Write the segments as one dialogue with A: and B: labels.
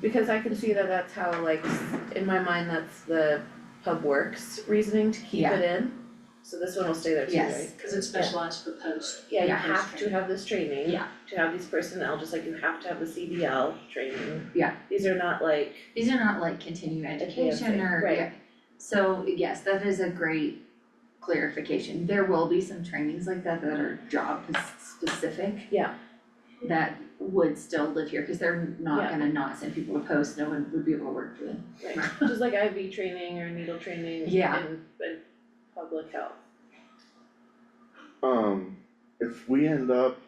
A: Because I can see that that's how like, s- in my mind, that's the Pub Works reasoning to keep
B: Yeah.
A: it in. So this one will stay there too, right?
B: Yes.
C: Cause it's specialized for post.
A: Yeah, you
B: Yeah.
A: have to have this training.
B: Yeah.
A: To have these personnel, just like you have to have the CDL training.
B: Yeah.
A: These are not like,
B: These are not like continuing education
A: thing,
B: or,
A: right.
B: yeah. So yes, that is a great clarification. There will be some trainings like that that are job specific.
A: Yeah.
B: That would still live here, cause they're
A: Yeah.
B: not gonna not send people to post, no one would be able to work for them.
A: right, just like IV training or needle training in
B: Yeah.
A: in public health.
D: Um, if we end up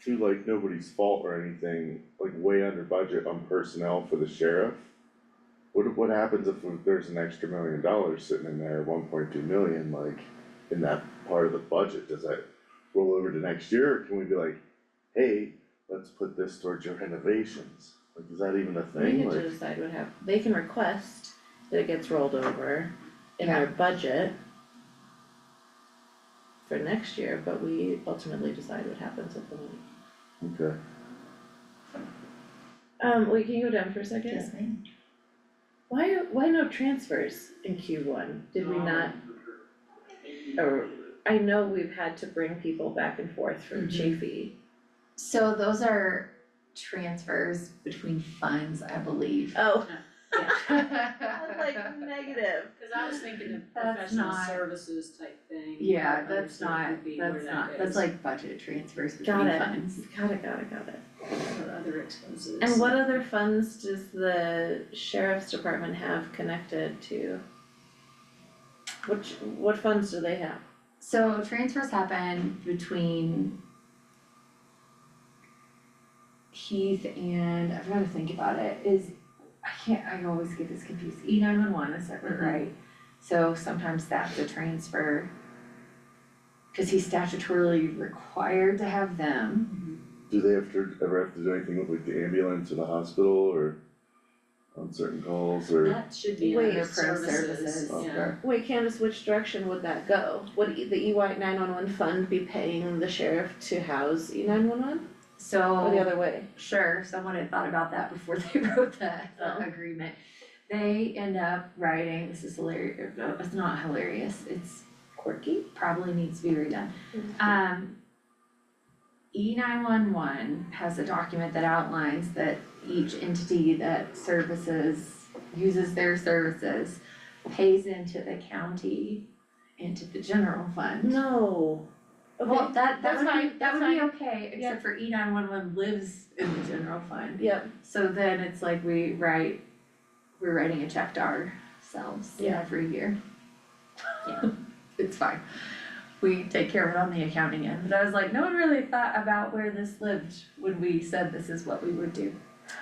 D: through like nobody's fault or anything, like way under budget on personnel for the sheriff. What what happens if there's an extra million dollars sitting in there, one point two million, like in that part of the budget, does that roll over to next year, or can we be like, hey, let's put this towards your renovations? Like, is that even a
A: We
D: thing,
A: get to
D: like,
A: decide what hap, they can request that it gets rolled over in their budget for next year, but we ultimately decide what happens with the money.
D: okay,
A: Um, wait, can you go down for a second?
B: ma'am.
A: Why, why no transfers in Q one? Did we not, or, I know we've had to bring people back and forth from
B: Mhm.
A: Chafee.
B: So those are transfers between funds, I believe.
A: Oh,
B: I'm
A: negative.
C: Cause I was thinking of
B: That's
C: professional
B: not-
C: services type thing.
B: Yeah,
C: I
B: that's
C: understand
B: not,
C: would be where
B: that's
C: that
B: not, that's
C: is.
B: like budget transfers between
A: Got it.
B: funds.
A: Got it, got it, got it.
C: For other expenses.
A: And what other funds does the sheriff's department have connected to? Which, what funds do they have?
B: So transfers happen between Heath and, I've gotta think about it, is, I can't, I always get this confused, E nine one one is separate,
A: Mhm.
B: right? So sometimes that's a transfer. Cause he's statutorily required to have them.
D: do they have to, ever have to do anything with like the ambulance or the hospital or on certain calls or?
C: That should be
A: Wait,
B: their
C: under
B: pro
C: services,
B: services.
C: yeah.
A: Wait, Candace, which direction would that go? Would E- the EY nine one one fund be paying the sheriff to house E nine one one or the
B: So,
A: other way?
B: sure, someone had thought about that before they wrote the the
A: Oh.
B: agreement. They end up writing, this is hilarious, no, it's not hilarious, it's
A: Quirky?
B: probably needs to be redone.
A: Mhm.
B: Um. E nine one one has a document that outlines that each entity that services, uses their services, pays into the county, into the general fund.
A: No.
B: Well, that
A: that's
B: that would
A: fine,
B: be,
A: that's
B: that would be okay,
A: Yeah.
B: except for E nine one one lives in the general fund.
A: Yep,
B: So then it's like we write, we're writing a check to ourselves
A: Yeah.
B: every year. Yeah. It's fine. We take care of it on the accounting end, but I was like, no one really thought about where this lived when we said this is what we would do.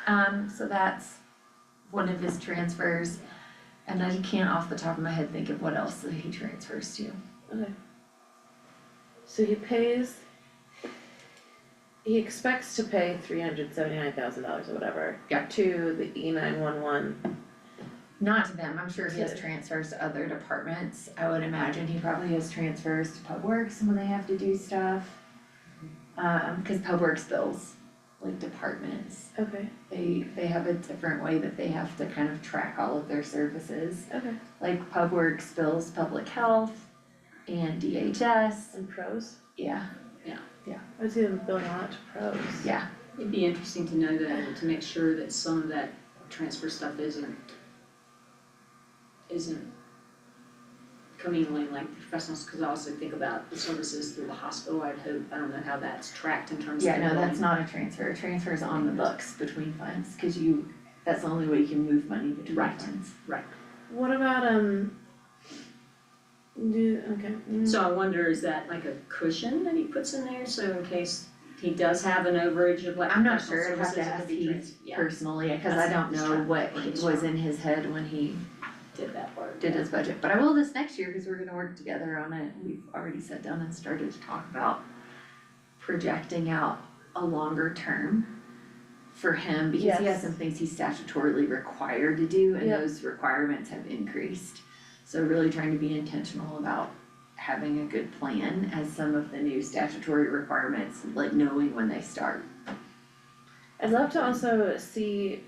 B: Um, so that's one of his transfers. And I can't off the top of my head think of what else that he transfers to.
A: so he pays. He expects to pay three hundred seventy-nine thousand dollars or whatever.
B: Yeah.
A: To the E nine one one,
B: Not to them, I'm sure he has
A: Yeah.
B: transfers to other departments. I would imagine he probably has transfers to Pub Works when they have to do stuff. Um, cause Pub Works bills, like departments,
A: okay,
B: they, they have a different way that they have to kind of track all of their services.
A: okay,
B: Like Pub Works bills public health and DHS,
A: and pros,
B: yeah,
A: I see them billing a lot to pros.
B: yeah.
C: It'd be interesting to know that, and to make sure that some of that transfer stuff isn't isn't commingling like professionals, cause I also think about the services through the hospital, I'd hope, I don't know how that's tracked in terms of.
B: Yeah, no, that's not a transfer, a transfer is on the books between funds, cause you, that's the only way you can move money between
C: Right.
B: funds.
A: What about, um. Do, okay, mm,
C: So I wonder, is that like a cushion that he puts in there, so in case he does have an overage of like
B: I'm not
C: professional
B: sure, I'd have to
C: services, it
B: ask
C: could be
B: Heath
C: trans- yeah,
B: personally, cause I
C: That's-
B: don't
C: that's
B: know
C: true.
B: what
C: That's
B: was
C: true.
B: in his head when he
C: did that part.
B: did his budget, but I will this next year, cause we're gonna work together on it, we've already sat down and started to talk about projecting out a longer term for him, because he
A: Yes.
B: has some things he's statutorily required to do, and
A: Yep.
B: those requirements have increased. So really trying to be intentional about having a good plan as some of the new statutory requirements, like knowing when they start.
A: I'd love to also see